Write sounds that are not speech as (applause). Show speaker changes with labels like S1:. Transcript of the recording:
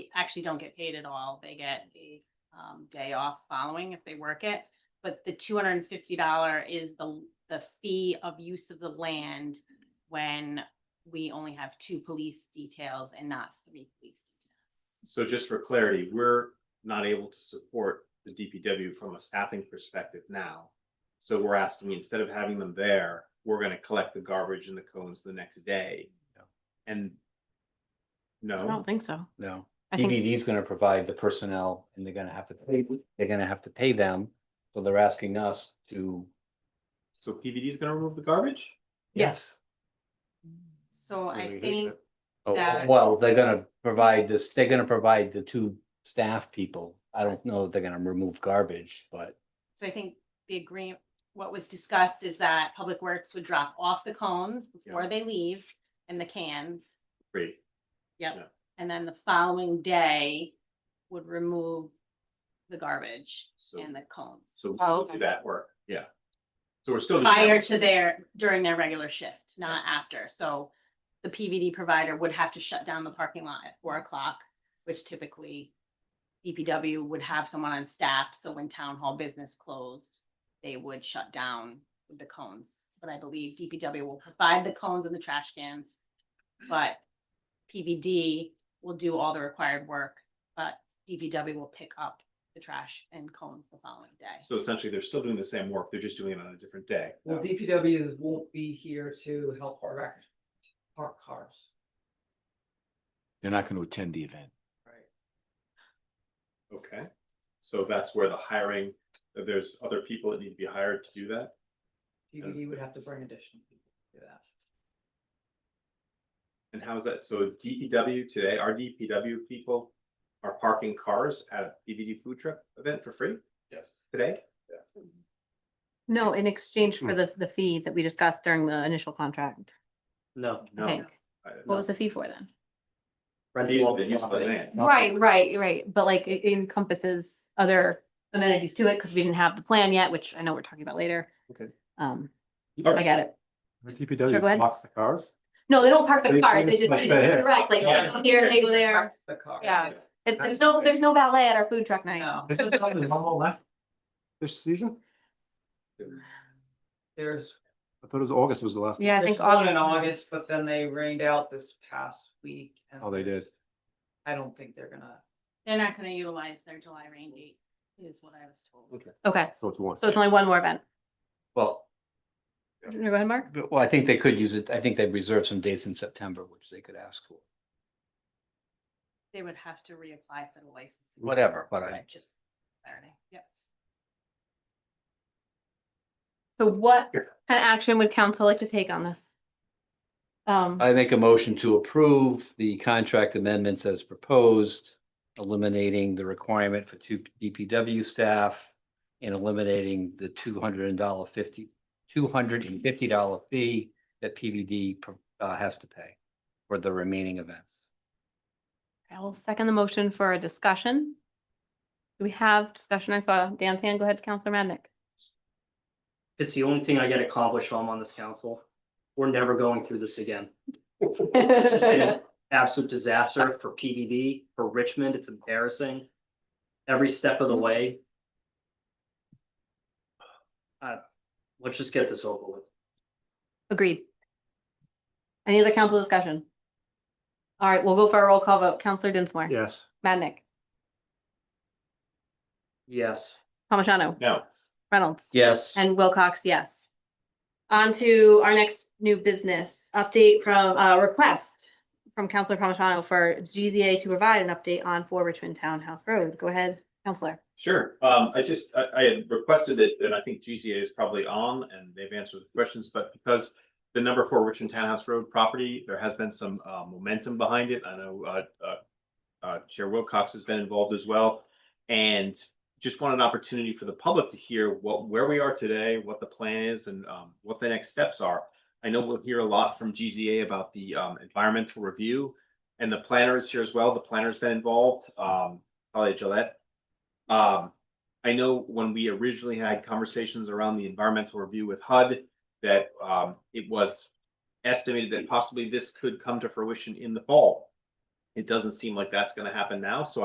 S1: actually don't get paid at all. They get a um day off following if they work it. But the two hundred and fifty dollar is the the fee of use of the land when we only have two police details and not three police details.
S2: So just for clarity, we're not able to support the DPW from a staffing perspective now. So we're asking, instead of having them there, we're gonna collect the garbage and the cones the next day. And
S3: I don't
S2: no,
S3: think so.
S4: No,
S3: I think,
S4: DPD is gonna provide the personnel and they're gonna have to pay, they're gonna have to pay them. So they're asking us to.
S2: so PVD is gonna remove the garbage?
S4: Yes.
S1: So I think
S4: Oh,
S1: that-
S4: well, they're gonna provide this, they're gonna provide the two staff people. I don't know if they're gonna remove garbage, but
S1: So I think the agreement, what was discussed is that Public Works would drop off the cones before
S2: Yeah.
S1: they leave and the cans.
S2: Great.
S1: And then the following day would remove the garbage
S2: So,
S1: and the cones.
S2: so
S3: Oh,
S2: we'll
S3: okay.
S2: do that work, yeah. So we're still. doing that.
S1: Prior to their, during their regular shift, not after. So the PVD provider would have to shut down the parking lot at four o'clock, which typically DPW would have someone on staff. So when town hall business closed, they would shut down with the cones. But I believe DPW will provide the cones and the trash cans. But PVD will do all the required work, but DPW will pick up the trash and cones the following day.
S2: So essentially, they're still doing the same work, they're just doing it on a different day.
S5: Well, DPW is- won't be here to help our record, park cars.
S6: They're not going to attend the event.
S5: Right.
S2: Okay, so that's where the hiring, there's other people that need to be hired to do that?
S5: DPD would have to bring additional people to do that.
S2: And how's that? So DPW today, our DPW people are parking cars at a PVD food truck event for free? Yes. Today?
S3: no, in exchange for the, the fee that we discussed during the initial contract,
S7: No.
S3: I
S2: No.
S3: think. What was the fee for then?
S2: Fees for the use of the land.
S3: Right, right, right. But like it encompasses other amenities to it because we didn't have the plan yet, which I know we're talking about later.
S2: Okay.
S3: Um,
S2: All
S3: I
S2: right.
S3: got it.
S7: The
S3: Sure, go ahead.
S7: DPW blocks the cars?
S3: No, they don't park the
S7: They-
S3: cars.
S7: they
S3: They just,
S7: just park there.
S3: right, like they go here, they go there.
S5: The car.
S3: Yeah. It- There's no, there's no ballet at our food truck night.
S5: No,
S7: This is not the normal left this season?
S5: there's,
S7: I thought it was August was the last.
S3: Yeah, I
S5: there's
S3: think
S5: one in
S3: August.
S5: August, but then they rained out this past week. and
S7: Oh, they did.
S5: I don't think they're gonna,
S1: They're not gonna utilize their July rain date, is what I was told.
S3: Okay,
S7: So it's one.
S3: so it's only one more event.
S4: well,
S3: Go ahead, Mark.
S4: but- well, I think they could use it. I think they reserved some dates in September, which they could ask for.
S1: They would have to reapply for the license.
S4: Whatever, but I-
S1: Right, Just Saturday, yep.
S3: So what kind of action would council like to take on this? Um,
S4: I make a motion to approve the contract amendments as proposed, eliminating the requirement for two DPW staff and eliminating the two hundred and dollar fifty, two hundred and fifty dollar fee that PVD pro- uh, has to pay for the remaining events.
S3: I will second the motion for a discussion. Do we have discussion? I saw Dan's hand. Go ahead, Counselor Madnick.
S8: It's the only thing I get accomplished while I'm on this council. We're never going through this again. This has been an absolute disaster for PVD, for Richmond. It's embarrassing. Every step of the way. Uh, let's just get this over with.
S3: (laughs) Agreed. Any other council discussion? All right, we'll go for a roll call vote. Counselor Dinsmore.
S7: Yes.
S3: Madnick,
S8: Yes.
S3: Palmigano,
S2: No,
S3: Reynolds.
S4: Yes.
S3: And Wilcox, yes. On to our next new business update from, uh, request from Counselor Palmigano for GZA to provide an update on for Richmond Townhouse Road. Go ahead, Counselor.
S2: sure. Um, I just, I, I had requested it, and I think GZA is probably on and they've answered the questions, but because the number four Richmond Townhouse Road property, there has been some, uh, momentum behind it. I know, uh, uh, uh, Chair Wilcox has been involved as well. And just want an opportunity for the public to hear what, where we are today, what the plan is and um, what the next steps are. I know we'll hear a lot from GZA about the um, environmental review and the planner is here as well. The planner's been involved, um, Holly Gillette. Um, I know when we originally had conversations around the environmental review with HUD, that um, it was estimated that possibly this could come to fruition in the fall. It doesn't seem like that's gonna happen now, so